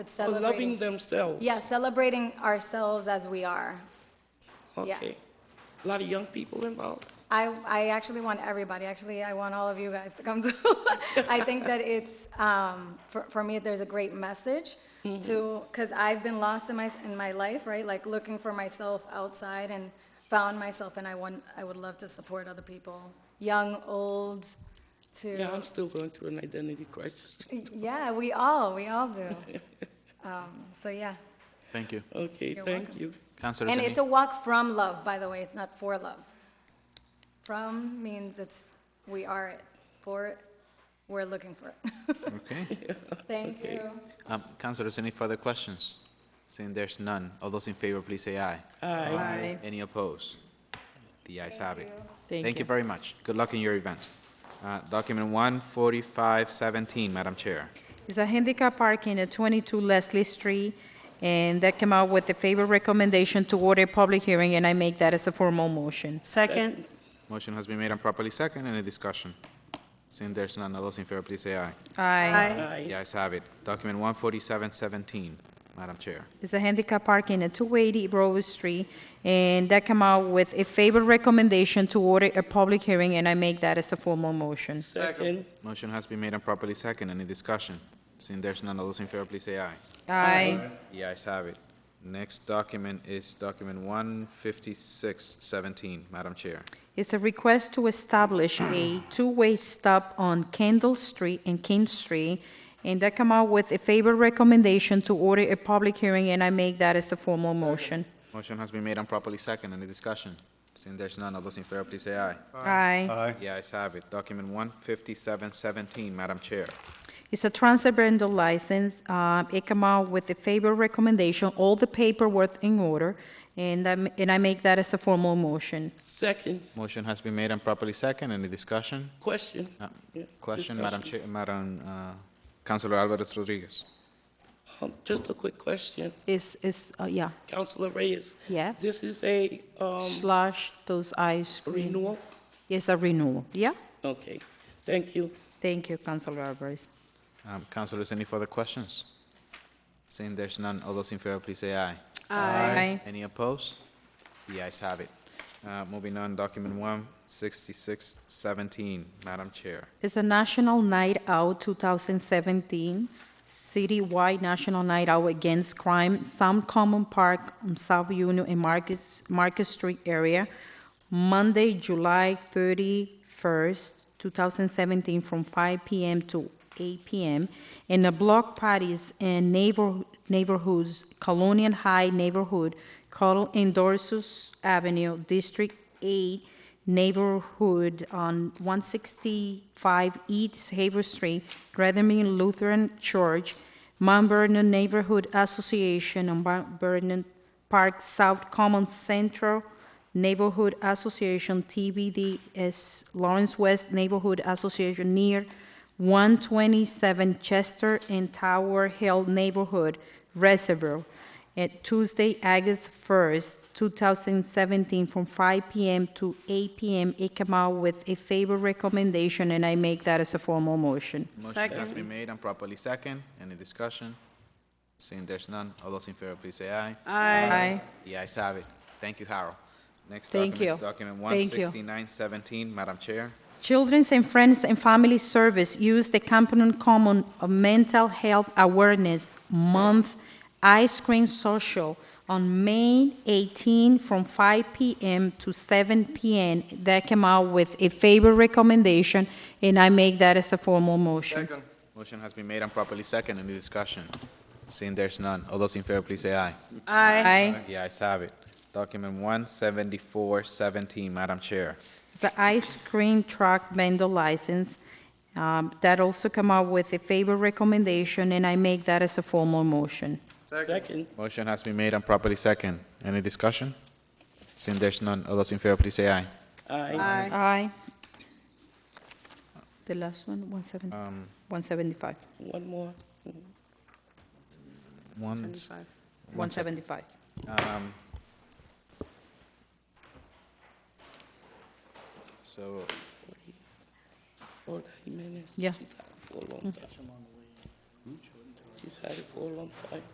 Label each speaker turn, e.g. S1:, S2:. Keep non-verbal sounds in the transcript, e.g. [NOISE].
S1: It's
S2: for loving
S1: celebrating,
S2: themselves.
S1: yeah, celebrating ourselves as we are. yeah.
S2: Okay. A lot of young people involved.
S1: I, I actually want everybody, actually, I want all of you guys to come [LAUGHS] to. I think that it's, um, for, for me, there's a great message to, because I've been lost in my, in my life, right? Like looking for myself outside and found myself, and I want, I would love to support other people, young, old, to.
S2: Yeah, I'm still going through an identity crisis.
S1: Yeah, we all, we all do. Um, So, yeah.
S3: Thank you.
S2: Okay,
S1: You're
S2: thank
S1: welcome.
S2: you.
S3: Counselor
S1: And it's a
S3: Zini?
S1: walk from love, by the way, it's not for love. From means it's, we are it, for it, we're looking for it. [LAUGHS]
S3: Okay.
S1: Thank
S2: Okay.
S1: you.
S3: Um, Counselors, any further questions? Seeing there's none, all those in favor, please say aye.
S2: Aye.
S4: Aye.
S3: Any opposed? The ayes have it.
S4: Thank
S3: Thank you
S4: you.
S3: very much. Good luck in your event. Uh, Document 14517, Madam Chair.
S4: It's a handicap parking at 22 Leslie Street, and that came out with a favor recommendation to order a public hearing, and I make that as a formal motion.
S5: Second,
S3: Motion has been made and properly second. Any discussion? Seeing there's none, all those in favor, please say aye.
S4: Aye.
S5: aye.
S3: The ayes have it. Document 14717, Madam Chair.
S4: It's a handicap parking at 280 Rose Street, and that came out with a favor recommendation to order a public hearing, and I make that as a formal motion.
S2: Second,
S3: Motion has been made and properly second. Any discussion? Seeing there's none, all those in favor, please say aye.
S4: Aye.
S3: The ayes have it. Next document is document 15617, Madam Chair.
S4: It's a request to establish a two-way stop on Kendall Street and King Street, and that come out with a favor recommendation to order a public hearing, and I make that as a formal motion.
S3: Motion has been made and properly second. Any discussion? Seeing there's none, all those in favor, please say aye.
S4: Aye.
S3: The ayes have it. Document 15717, Madam Chair.
S4: It's a transfer vendor license, uh, it come out with a favor recommendation, all the paperwork in order, and I, and I make that as a formal motion.
S2: second,
S3: Motion has been made and properly second. Any discussion?
S2: question.
S3: Uh,
S2: Yeah,
S3: Question,
S2: discussion.
S3: Madam Chair, Madam uh, Councilor Alvarez Rodriguez.
S2: Um, Just a quick question.
S4: Is, is, uh, yeah,
S2: Counselor Reyes,
S4: yeah,
S2: this is a um,
S4: slash those ice cream.
S2: renewal?
S4: It's a renewal, yeah?
S2: Okay, thank you.
S4: Thank you, Councilor Alvarez.
S3: Um, Councilors, any further questions? Seeing there's none, all those in favor, please say aye.
S4: Aye.
S3: Any opposed? The ayes have it. Uh, Moving on, document 16617, Madam Chair.
S4: It's a National Night Out 2017, citywide National Night Out Against Crime, Some Common Park, um, South Union, and Marcus, Marcus Street area, Monday, July 31st, 2017, from 5 PM to 8 PM, in the block parties in neighbor- neighborhoods, Colonial High neighborhood, Carl Endorsus Avenue, District 8, neighborhood on 165 East Haver Street, Redmond Lutheran Church, Mount Vernon Neighborhood Association, and Mount Vernon Park South Common Central Neighborhood Association, TBDS, Lawrence West Neighborhood Association near 127 Chester and Tower Hill Neighborhood Reservoir at Tuesday, August 1st, 2017, from 5 PM to 8 PM. It came out with a favor recommendation, and I make that as a formal motion.
S3: Motion has been made and properly second. Any discussion? Seeing there's none, all those in favor, please say aye.
S4: Aye.
S3: The ayes have it. Thank you, Harold. Next
S4: Thank
S3: document is
S4: you.
S3: document
S4: Thank you.
S3: 16917, Madam Chair.
S4: Children's and Friends and Family Service use the Camden Common Mental Health Awareness Month Ice Cream Social on May 18 from 5 p.m. to 7 p.m. That came out with a favor recommendation, and I make that as a formal motion.
S3: Motion has been made and properly second. Any discussion? Seeing there's none, all those in favor, please say aye.
S4: Aye.
S3: The ayes have it. Document 17417, Madam Chair.
S4: The ice cream truck vendor license, um, that also came out with a favor recommendation, and I make that as a formal motion.
S2: Second,
S3: Motion has been made and properly second. Any discussion? Seeing there's none, all those in favor, please say aye.
S2: aye.
S4: Aye. The last one, 170
S3: Um,
S4: 175,
S2: One more.
S3: one,
S4: 175.
S3: um, so,
S2: Forty minutes.
S4: Yeah.
S2: For a long time. she's had it for a long time.